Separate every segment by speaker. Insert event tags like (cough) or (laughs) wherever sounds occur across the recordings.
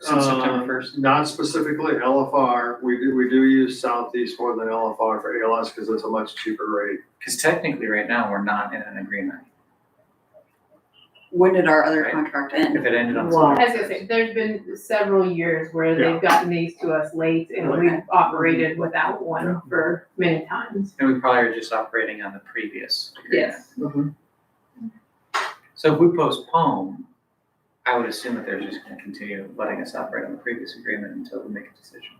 Speaker 1: since September
Speaker 2: Uh,
Speaker 1: first?
Speaker 2: Not specifically LFR, we do, we do use Southeast more than LFR for ALS because it's a much cheaper rate.
Speaker 1: Because technically, right now, we're not in an agreement.
Speaker 3: When did our other
Speaker 1: Right.
Speaker 3: contract end?
Speaker 1: If it ended on.
Speaker 4: Well-
Speaker 1: September
Speaker 5: As I say, there's been several years where they've gotten these to us late and we've operated without one for many times.
Speaker 1: And we probably are just operating on the previous agreement.
Speaker 5: Yes.
Speaker 1: So if we postpone, I would assume that they're just gonna continue letting us operate on the previous agreement until we make a decision.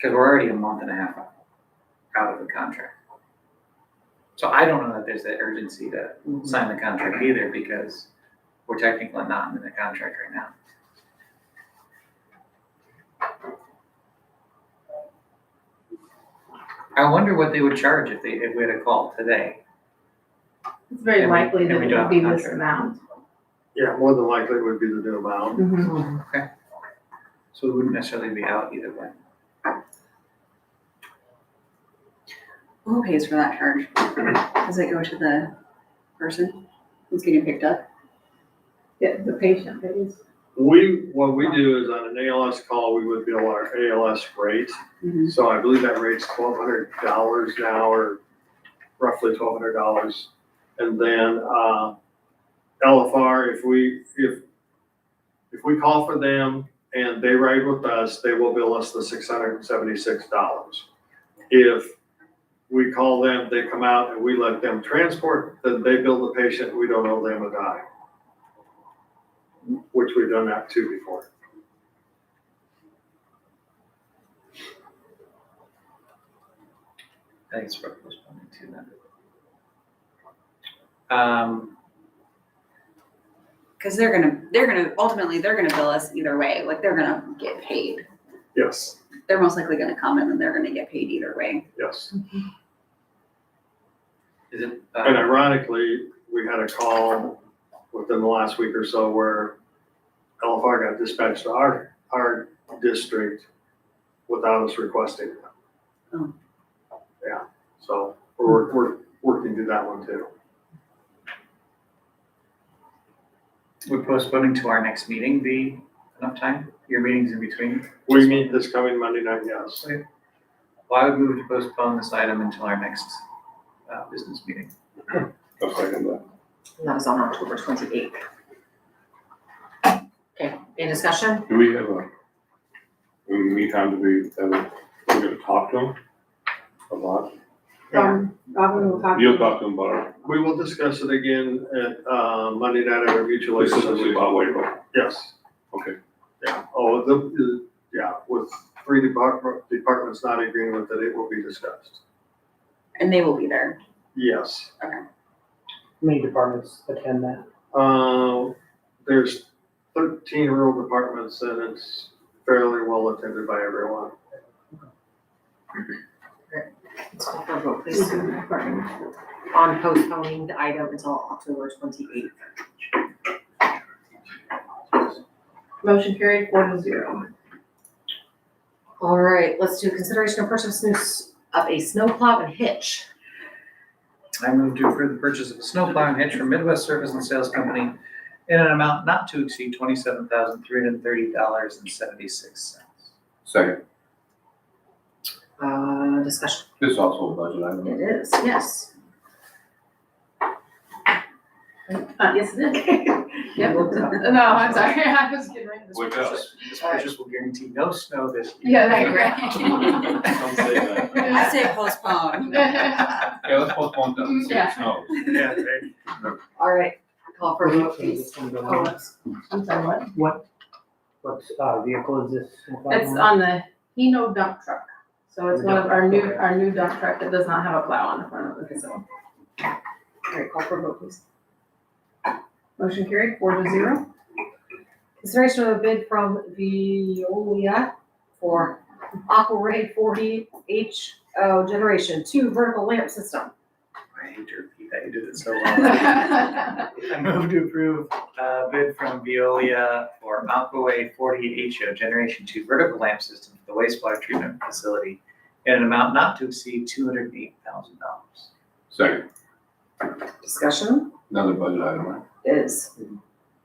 Speaker 1: Cause we're already a month and a half out of the contract. So I don't know that there's that urgency to sign the contract either, because we're technically not in the contract right now. I wonder what they would charge if they, if we had a call today.
Speaker 5: It's very
Speaker 1: And we-
Speaker 5: likely
Speaker 1: and
Speaker 5: that
Speaker 1: we
Speaker 5: it
Speaker 1: don't
Speaker 5: would be
Speaker 1: have
Speaker 5: this
Speaker 1: contract.
Speaker 5: amount.
Speaker 2: Yeah, more than likely it would be the new amount.
Speaker 5: Mhm.
Speaker 1: So it wouldn't necessarily be out either way.
Speaker 3: Who pays for that charge? Does it go to the person who's getting picked up?
Speaker 5: Yeah, the patient pays.
Speaker 2: We, what we do is on an ALS call, we would bill our ALS rate.
Speaker 3: Mhm.
Speaker 2: So I believe that rate's twelve hundred dollars an hour, roughly twelve hundred dollars. And then, uh, LFR, if we, if, if we call for them and they ride with us, they will bill us the six hundred and seventy-six dollars. If we call them, they come out and we let them transport, then they bill the patient, we don't owe them a dime. Which we've done that too before.
Speaker 1: Thanks for postponing to that. Um,
Speaker 3: Cause they're gonna, they're gonna, ultimately, they're gonna bill us either way, like they're gonna get paid.
Speaker 2: Yes,
Speaker 3: They're most likely gonna come and then they're gonna get paid either way.
Speaker 2: yes.
Speaker 1: is it,
Speaker 2: And
Speaker 1: uh,
Speaker 2: ironically, we had a call within the last week or so where LFR got dispatched to our, our district without us requesting it.
Speaker 3: Oh.
Speaker 2: Yeah, so we're, we're working through that one too.
Speaker 1: would postponing to our next meeting be enough time? Your meeting's in between?
Speaker 2: We meet this coming Monday night, yes.
Speaker 1: Well, I would move to postpone this item until our next, uh, business meeting.
Speaker 6: I'll second that.
Speaker 4: And that was on October twenty-eighth. Okay, any discussion?
Speaker 6: Do we have a, in the meantime, do we, have a- we're gonna talk to him a lot?
Speaker 5: Um, Robin will talk.
Speaker 6: You'll talk to him about,
Speaker 2: We will discuss it again at, uh, Monday night at our mutual aid
Speaker 6: specifically
Speaker 2: association.
Speaker 6: about labor.
Speaker 2: Yes,
Speaker 6: Okay,
Speaker 2: yeah, oh, the- the, yeah, with three department, departments not agreeing with it, it will be discussed.
Speaker 3: And they will be there.
Speaker 2: Yes.
Speaker 7: How many departments attend that?
Speaker 2: Uh, there's thirteen rural departments and it's fairly well attended by everyone.
Speaker 4: Let's call for a vote, please. On postponing the item until October twenty-eighth.
Speaker 5: Motion carried four to zero.
Speaker 4: All right, let's do consideration of purchase news of a snowplow and hitch.
Speaker 1: I move to approve the purchase of a snowplow and hitch from Midwest Service and Sales Company in an amount not to exceed twenty-seven thousand, three hundred and thirty dollars and seventy-six cents.
Speaker 6: second.
Speaker 4: Uh, discussion.
Speaker 6: This is also a budget item.
Speaker 4: It is, yes.
Speaker 5: Uh, yes, it is. Yep. No, I'm sorry, (laughs) I was getting ready to.
Speaker 6: Wake up.
Speaker 1: This purchase will guarantee no snow this year.
Speaker 5: Yeah, that's right.
Speaker 6: Don't say that.
Speaker 3: I
Speaker 5: (laughs)
Speaker 3: say postpone.
Speaker 6: (laughs) Yeah, let's postpone that. See if it
Speaker 5: Yeah.
Speaker 6: snows.
Speaker 1: Yeah, right.
Speaker 4: (laughs) All right, call for a vote,
Speaker 7: So is
Speaker 4: please.
Speaker 7: this one going
Speaker 4: Oh,
Speaker 7: on?
Speaker 4: let's- I'm sorry, what?
Speaker 7: What, what, uh, vehicle is this?
Speaker 5: It's on the Hino dump truck. So it's one of our new, our new dump truck that does not have a plow on the front of it, so.
Speaker 4: All right, call for a vote, please.
Speaker 5: Motion carried four to zero.
Speaker 4: Consideration of a bid from Veolia for Aquaray forty H O generation two vertical lamp system.
Speaker 1: I hate to repeat that, you did it so well. I move to approve a bid from Veolia for Aquaway forty HO Generation Two Vertical Lamp System for the wastewater treatment facility in an amount not to exceed two hundred and eight thousand dollars.
Speaker 6: Second,
Speaker 4: Discussion
Speaker 6: another budget item, right?
Speaker 4: is,